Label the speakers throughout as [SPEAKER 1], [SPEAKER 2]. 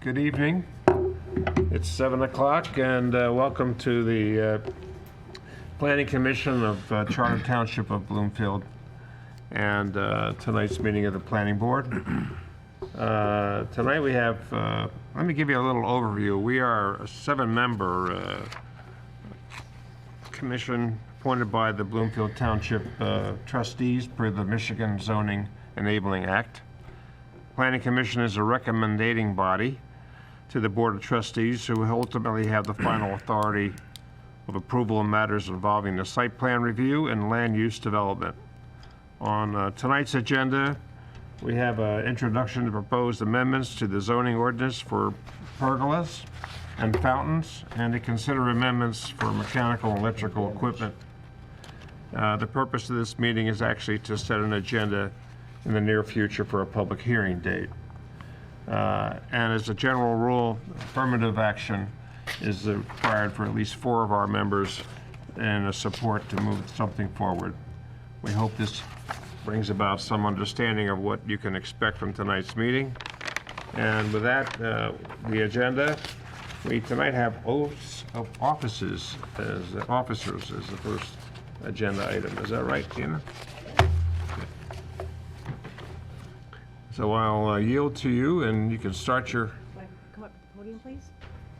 [SPEAKER 1] Good evening. It's 7 o'clock, and uh, welcome to the uh, Planning Commission of uh, Charter Township of Bloomfield and uh, tonight's meeting of the Planning Board. Uh, Tonight we have, uh, let me give you a little overview. We are a seven-member uh, commission appointed by the Bloomfield Township uh, trustees per the Michigan Zoning Enabling Act. Planning Commission is a recommending body to the Board of Trustees, who ultimately have the final authority of approval in matters involving the site plan review and land use development. On uh, tonight's agenda, we have an introduction to proposed amendments to the zoning ordinance for pergolas and fountains, and to consider amendments for mechanical and electrical equipment. Uh, The purpose of this meeting is actually to set an agenda in the near future for a public hearing date. Uh, And as a general rule, affirmative action is required for at least four of our members and a support to move something forward. We hope this brings about some understanding of what you can expect from tonight's meeting. And with that, uh, the agenda, we tonight have oaths of offices as, uh, officers as the first agenda item. Is that right, Tina? So I'll uh, yield to you, and you can start your
[SPEAKER 2] Mike, Come up to the podium, please.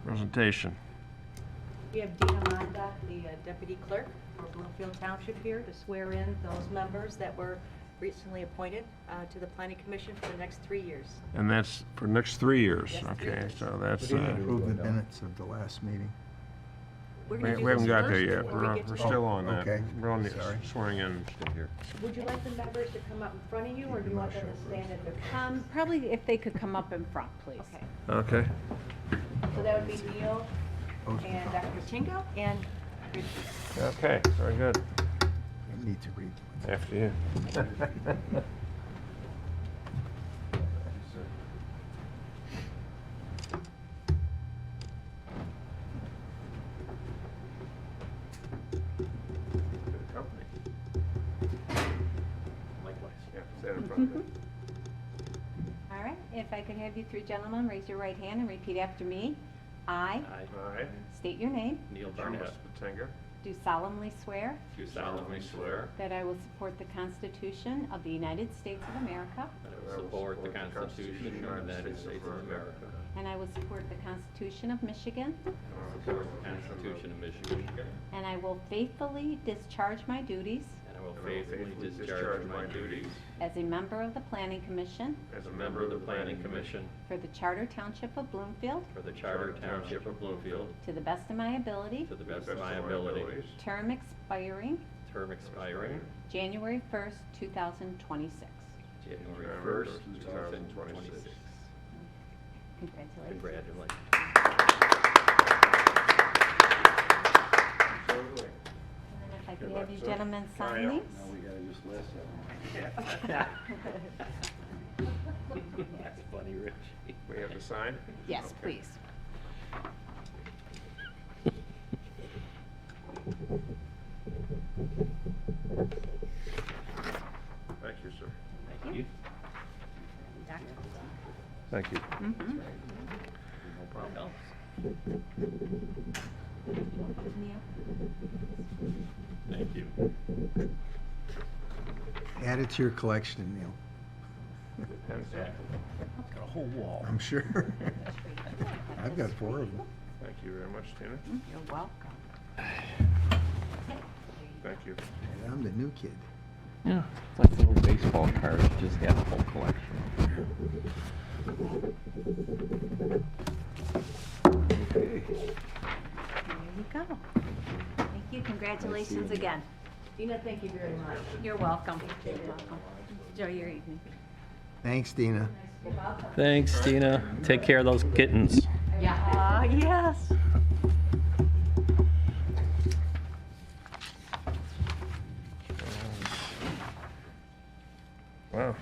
[SPEAKER 1] presentation.
[SPEAKER 2] We have Dina Monda, the uh, deputy clerk for Bloomfield Township here to swear in those members that were recently appointed uh, to the planning commission for the next three years.
[SPEAKER 1] And that's for next three years,
[SPEAKER 2] Yes, three
[SPEAKER 1] okay?
[SPEAKER 2] years.
[SPEAKER 1] So that's,
[SPEAKER 3] We
[SPEAKER 1] uh,
[SPEAKER 3] didn't approve the minutes of the last meeting.
[SPEAKER 2] We're
[SPEAKER 1] we
[SPEAKER 2] gonna do
[SPEAKER 1] we haven't
[SPEAKER 2] this
[SPEAKER 1] got there
[SPEAKER 2] first
[SPEAKER 1] yet.
[SPEAKER 2] before
[SPEAKER 1] We're
[SPEAKER 2] we
[SPEAKER 1] on-
[SPEAKER 2] get
[SPEAKER 1] we're
[SPEAKER 2] to-
[SPEAKER 1] still on that.
[SPEAKER 3] Okay.
[SPEAKER 1] We're on the
[SPEAKER 3] Sorry.
[SPEAKER 1] swearing in.
[SPEAKER 2] Would you like the members to come up in front of you, or do you want them to stand at their...
[SPEAKER 4] Um, probably if they could come up in front, please.
[SPEAKER 2] Okay,
[SPEAKER 1] Okay.
[SPEAKER 2] so that would be Neil
[SPEAKER 3] Oh,
[SPEAKER 2] and Dr. Tingo and Richard.
[SPEAKER 1] Okay, very good.
[SPEAKER 3] I Need to read.
[SPEAKER 1] After you.
[SPEAKER 4] All right, if I could have you three gentlemen raise your right hand and repeat after me. I
[SPEAKER 1] I,
[SPEAKER 4] state your name,
[SPEAKER 5] Neil
[SPEAKER 1] Thomas
[SPEAKER 5] Barnett,
[SPEAKER 1] Batenga,
[SPEAKER 4] do solemnly swear
[SPEAKER 5] do solemnly swear
[SPEAKER 4] that I will support the Constitution of the United States of America,
[SPEAKER 5] that I will support the Constitution of the United States of America,
[SPEAKER 4] and I will support the Constitution of Michigan,
[SPEAKER 5] support the Constitution of Michigan,
[SPEAKER 4] and I will faithfully discharge my duties
[SPEAKER 5] and I will faithfully discharge my duties
[SPEAKER 4] as a member of the Planning Commission
[SPEAKER 1] as
[SPEAKER 5] as a member of the Planning Commission
[SPEAKER 4] for the Charter Township of Bloomfield,
[SPEAKER 5] for the Charter Township of Bloomfield
[SPEAKER 4] to the best of my ability,
[SPEAKER 5] to the best of my ability,
[SPEAKER 4] term expiring
[SPEAKER 5] term expiring
[SPEAKER 4] January 1st, 2026.
[SPEAKER 5] January 1st, 2026.
[SPEAKER 4] Congratulations.
[SPEAKER 5] Congratulations.
[SPEAKER 4] And then if I
[SPEAKER 1] Good
[SPEAKER 4] could
[SPEAKER 1] luck,
[SPEAKER 4] have you
[SPEAKER 1] sir.
[SPEAKER 4] gentlemen
[SPEAKER 1] Carry
[SPEAKER 4] sign
[SPEAKER 1] on.
[SPEAKER 4] these.
[SPEAKER 5] That's funny, Rich.
[SPEAKER 1] We have to sign?
[SPEAKER 4] Yes,
[SPEAKER 1] Okay.
[SPEAKER 4] please.
[SPEAKER 1] Thank you, sir.
[SPEAKER 5] Thank you.
[SPEAKER 1] Thank you.
[SPEAKER 5] Mm-hmm.
[SPEAKER 4] Mhm.
[SPEAKER 5] No problem.
[SPEAKER 4] Neil?
[SPEAKER 5] Thank you.
[SPEAKER 3] Add it to your collection, Neil,
[SPEAKER 1] Exactly.
[SPEAKER 5] Got a whole wall.
[SPEAKER 3] I'm sure. I've got four of them.
[SPEAKER 1] Thank you very much, Tina.
[SPEAKER 4] You're welcome.
[SPEAKER 1] Thank you.
[SPEAKER 3] And I'm the new kid.
[SPEAKER 6] Yeah, it's like little baseball cards, just got a whole collection.
[SPEAKER 4] There you go. Thank you. Congratulations again.
[SPEAKER 2] Dina, thank you very much.
[SPEAKER 4] You're welcome. You're welcome. Enjoy your evening.
[SPEAKER 3] Thanks, Dina.
[SPEAKER 6] Thanks, Tina. Take care of those kittens.
[SPEAKER 4] Yeah. Yes.
[SPEAKER 1] Wow.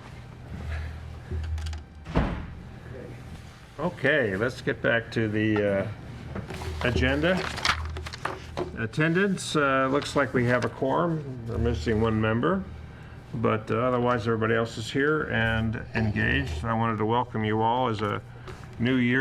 [SPEAKER 1] Okay, let's get back to the uh, agenda. Attendance, uh, looks like we have a quorum. We're missing one member, but uh, otherwise, everybody else is here and engaged. I wanted to welcome you all as a new year